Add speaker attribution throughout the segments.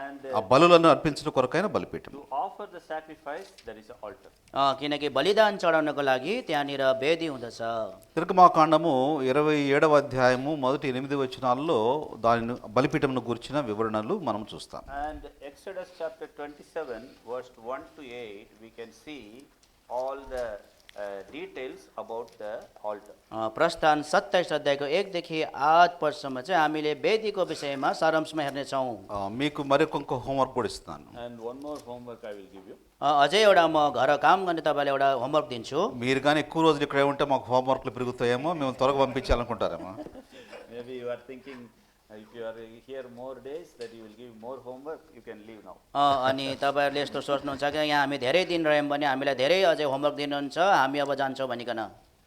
Speaker 1: and uh,
Speaker 2: ఆ బలులను అర్పించడం కొరకైన బలిపీఠం
Speaker 1: to offer the sacrifice, there is an altar.
Speaker 3: अ, किनकि बलिदान चढाउनको लागि त्यहाँनिर वेदी हुँदछ
Speaker 2: తిరుగుమాకాండము ఇరవై ఏడవ అధ్యాయము మొదటి ఎనిమిది వచనాల్లో దానిని బలిపీఠమును గురించిన వివరణలు మనం చూస్తాం
Speaker 1: And Exodus chapter 27, verse 1 to 8, we can see all the uh, details about the altar.
Speaker 3: अ, प्रस्थान सत्ताइस अध्यायको एकदेखि आठ पदसम्म चाहिँ हामीले वेदीको विषयमा सारांशमा हेर्नेछौँ
Speaker 2: ఆ, మీకు మరికొంక హోంవర్క్ కూడా ఇస్తున్నాను
Speaker 1: And one more homework I will give you.
Speaker 3: अ, अझै एउटा म घर काम गर्ने तपाईँलाई एउटा होमवर्क दिन्छु
Speaker 2: మీరు కానీ ఎక్కువ రోజులు ఇక్కడే ఉంటే మాకు హోంవర్క్లు పెరుగుతాయేమో మేము త్వరగా పంపించాలనుకుంటారేమో
Speaker 1: Maybe you are thinking, uh, if you are here more days, that you will give more homework, you can leave now.
Speaker 3: अ, अनि तपाईँहरूले यस्तो सोच्नुहुन्छ कि यहाँ हामी धेरै दिन रह्यौँ भने हामीलाई धेरै अझै होमवर्क दिनुहुन्छ हामी अब जान्छौँ भनिकन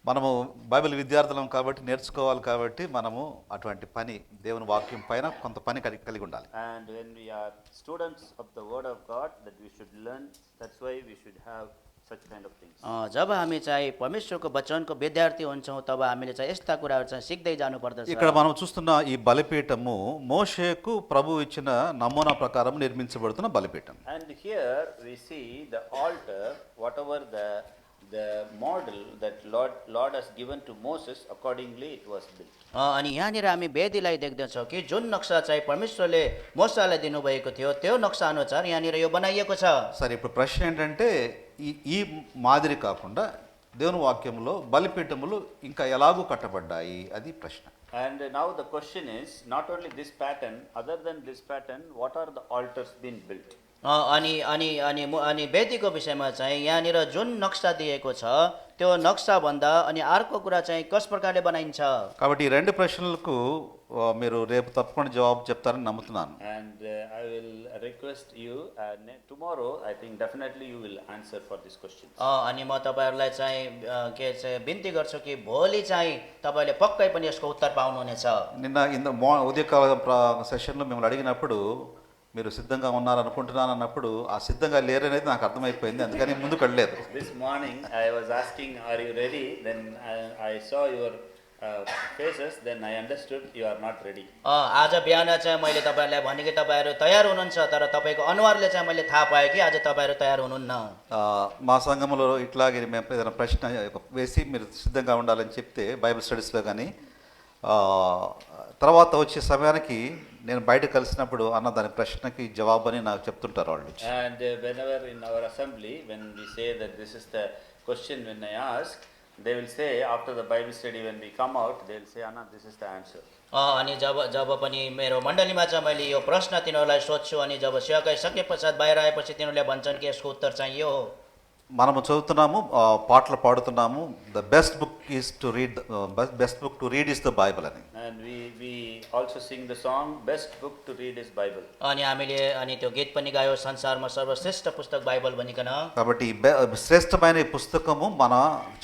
Speaker 2: మనము బైబిల్ విద్యార్థులం కాబట్టి నేర్చుకోవాలి కాబట్టి మనము అటువంటి పని దేవుని వాక్యం పైన కొంత పని కలిగి కలిగి ఉండాలి
Speaker 1: And when we are students of the Word of God, that we should learn, that's why we should have such kind of things.
Speaker 3: अ, जब हामी चाहिँ परमेश्वरको वचनको विद्यार्थी हुन्छौँ तब हामीले चाहिँ यस्ता कुराहरू चाहिँ सिक्दै जानुपर्दछ
Speaker 2: ఇక్కడ మనం చూస్తున్న ఈ బలిపీఠము మోషేకు ప్రభు ఇచ్చిన నమూనా ప్రకారం నిర్మించబడుతున్న బలిపీఠం
Speaker 1: And here we see the altar, whatever the, the model that Lord, Lord has given to Moses, accordingly it was built.
Speaker 3: अ, अनि यहाँनिर हामी वेदीलाई देख्दछौँ कि जुन नक्सा चाहिँ परमेश्वरले मोसालाई दिनुभएको थियो त्यो नक्सा अनुसार यहाँनिर यो बनाइएको छ
Speaker 2: సరే ఇప్పుడు ప్రశ్న ఏంటంటే ఈ ఈ మాదిరి కాకుండా దేవుని వాక్యంలో బలిపీఠములు ఇంకా ఎలాగూ కట్టబడ్డాయి అది ప్రశ్న
Speaker 1: And now the question is, not only this pattern, other than this pattern, what are the altars being built?
Speaker 3: अ, अनि अनि अनि मु- अनि वेदीको विषयमा चाहिँ यहाँनिर जुन नक्सा दिएको छ त्यो नक्साभन्दा अनि अर्को कुरा चाहिँ कस प्रकारले बनाइन्छ
Speaker 2: కాబట్టి ఈ రెండు ప్రశ్నలకు ఆ, మీరు రేపు తప్పకుండా జవాబు చెప్తారని నమ్ముతున్నాను
Speaker 1: And uh, I will request you, uh, ne- tomorrow, I think definitely you will answer for this question.
Speaker 3: अ, अनि म तपाईँहरूलाई चाहिँ अ, के चाहिँ बिन्ती गर्छु कि भोलि चाहिँ तपाईँले पक्कै पनि यसको उत्तर पाउनुहुनेछ
Speaker 2: నిన్న ఇంత మా ఉదయకాల ప్ర- సెషన్లో మిమ్మల్ని అడిగినప్పుడు మీరు సిద్ధంగా ఉన్నారు అనుకుంటున్నాను అన్నప్పుడు ఆ సిద్ధంగా లేరనేది నాకు అర్థమైపోయింది అందుకని ముందుకు వెళ్ళలేదు
Speaker 1: This morning, I was asking, are you ready? Then I, I saw your uh, faces, then I understood you are not ready.
Speaker 3: अ, आज बिहान चाहिँ मैले तपाईँहरूलाई भने कि तपाईँहरू तयार हुनुहुन्छ तर तपाईँको अनुहारले चाहिँ मैले थाहा पाएँ कि आज तपाईँहरू तयार हुनुहुन्न
Speaker 2: ఆ, మా సంఘంలో ఇట్లాగే మేము ఏదైనా ప్రశ్న వేసి మీరు సిద్ధంగా ఉండాలని చెప్తే బైబిల్ స్టడీస్లో కానీ ఆ, తర్వాత వచ్చే సమయానికి నేను బయట కలిసినప్పుడు అన్న దాని ప్రశ్నకి జవాబు అని నాకు చెప్తుంటారు వాళ్ళు
Speaker 1: And uh, whenever in our assembly, when we say that this is the question when I ask, they will say after the Bible study when we come out, they will say, Anna, this is the answer.
Speaker 3: अ, अनि जब जब पनि मेरो मण्डलीमा चाहिँ मैले यो प्रश्न तिनीहरूलाई सोध्छु अनि जब सेवाकाई सके पश्चात बाहिर आएपछि तिनीहरूले भन्छन् कि यसको उत्तर चाहिँ यो हो
Speaker 2: మనము చదువుతున్నాము ఆ, పాటలు పాడుతున్నాము the best book is to read best book to read is the Bible అని
Speaker 1: And we, we also sing the song, best book to read is Bible.
Speaker 3: अनि हामीले अनि त्यो गीत पनि गायो संसारमा सर्वश्रेष्ठ पुस्तक बाइबल भनिकन
Speaker 2: కాబట్టి ఈ బె- శ్రేష్టమైన ఈ పుస్తకము మన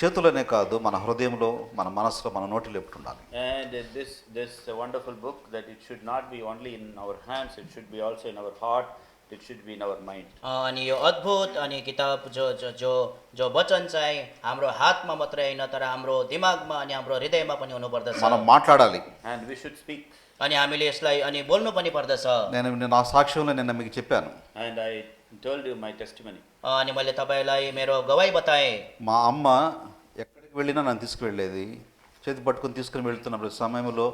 Speaker 2: చేతులనే కాదు మన హృదయంలో మన మనసులో మన నోటిలో ఎప్పుడు ఉండాలి
Speaker 1: And uh, this, this wonderful book that it should not be only in our hands, it should be also in our heart, it should be in our mind.
Speaker 3: अ, अनि यो अद्भुत अनि किताब जो जो जो जो वचन चाहिँ हाम्रो हातमा मात्रै होइन तर हाम्रो दिमागमा अनि हाम्रो हृदयमा पनि हुनुपर्दछ
Speaker 2: మనం మాట్లాడాలి
Speaker 1: And we should speak.
Speaker 3: अनि हामीले यसलाई अनि बोल्नु पनि पर्दछ
Speaker 2: నేను నేను నా సాక్ష్యంలో నిన్న మీకు చెప్పాను
Speaker 1: And I told you my testimony.
Speaker 3: अ, अनि मैले तपाईँलाई मेरो गवाई बताएँ
Speaker 2: మా అమ్మ ఎక్కడికి వెళ్ళినా నన్ను తీసుకువెళ్ళేది చేతి పట్టుకొని తీసుకుని వెళ్తున్నప్పుడు సమయంలో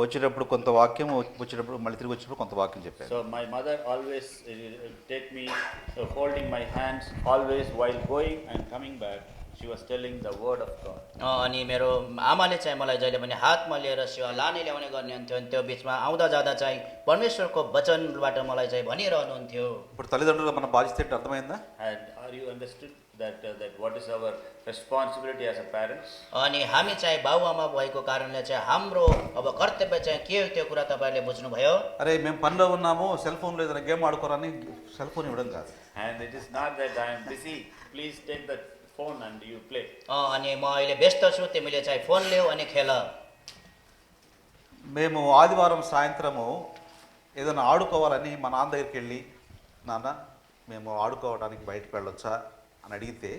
Speaker 2: వచ్చేటప్పుడు కొంత వాక్యం వచ్చేటప్పుడు మళ్ళీ తిరిగి వచ్చేటప్పుడు కొంత వాక్యం చెప్పాను
Speaker 1: So my mother always uh, take me uh, holding my hands always while going and coming back. She was telling the word of God.
Speaker 3: अ, अनि मेरो आमाले चाहिँ मलाई जहिले पनि हातमा लिएर सेवा लाने ल्याउने गर्ने हुन्थ्यो अनि त्यो बिचमा आउँदा जाँदा चाहिँ परमेश्वरको वचनबाट मलाई चाहिँ भनिरहनुहुन्थ्यो
Speaker 2: ఇప్పుడు తల్లిదండ్రులు మన బాధ్యత ఏంటి అర్థమైందా
Speaker 1: And are you understood that uh, that what is our responsibility as a parents?
Speaker 3: अनि हामी चाहिँ बाबुआमा भएको कारणले चाहिँ हाम्रो अब कर्तव्य चाहिँ के हो त्यो कुरा तपाईँहरूले बुझ्नुभयो
Speaker 2: అరే మేము పనిలో ఉన్నాము సెల్ ఫోన్లో ఏదైనా గేమ్ ఆడుకోరని సెల్ ఫోన్ ఇవ్వడం కాదు
Speaker 1: And it is not that I am busy. Please take the phone and you play.
Speaker 3: अ, अनि म अहिले व्यस्त छु तिमीले चाहिँ फोन ल्याऊ अनि खेल
Speaker 2: మేము ఆదివారం సాయంత్రము ఏదైనా ఆడుకోవాలని మా నాన్న దగ్గరికి వెళ్ళి నాన్న మేము ఆడుకోవడానికి బయటకు వెళ్ళొచ్చా అని అడిగితే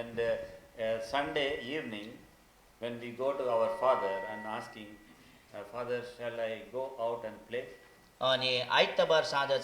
Speaker 1: And uh, uh, Sunday evening, when we go to our father and asking, uh, Father, shall I go out and play?
Speaker 3: अनि आइतबार साँझ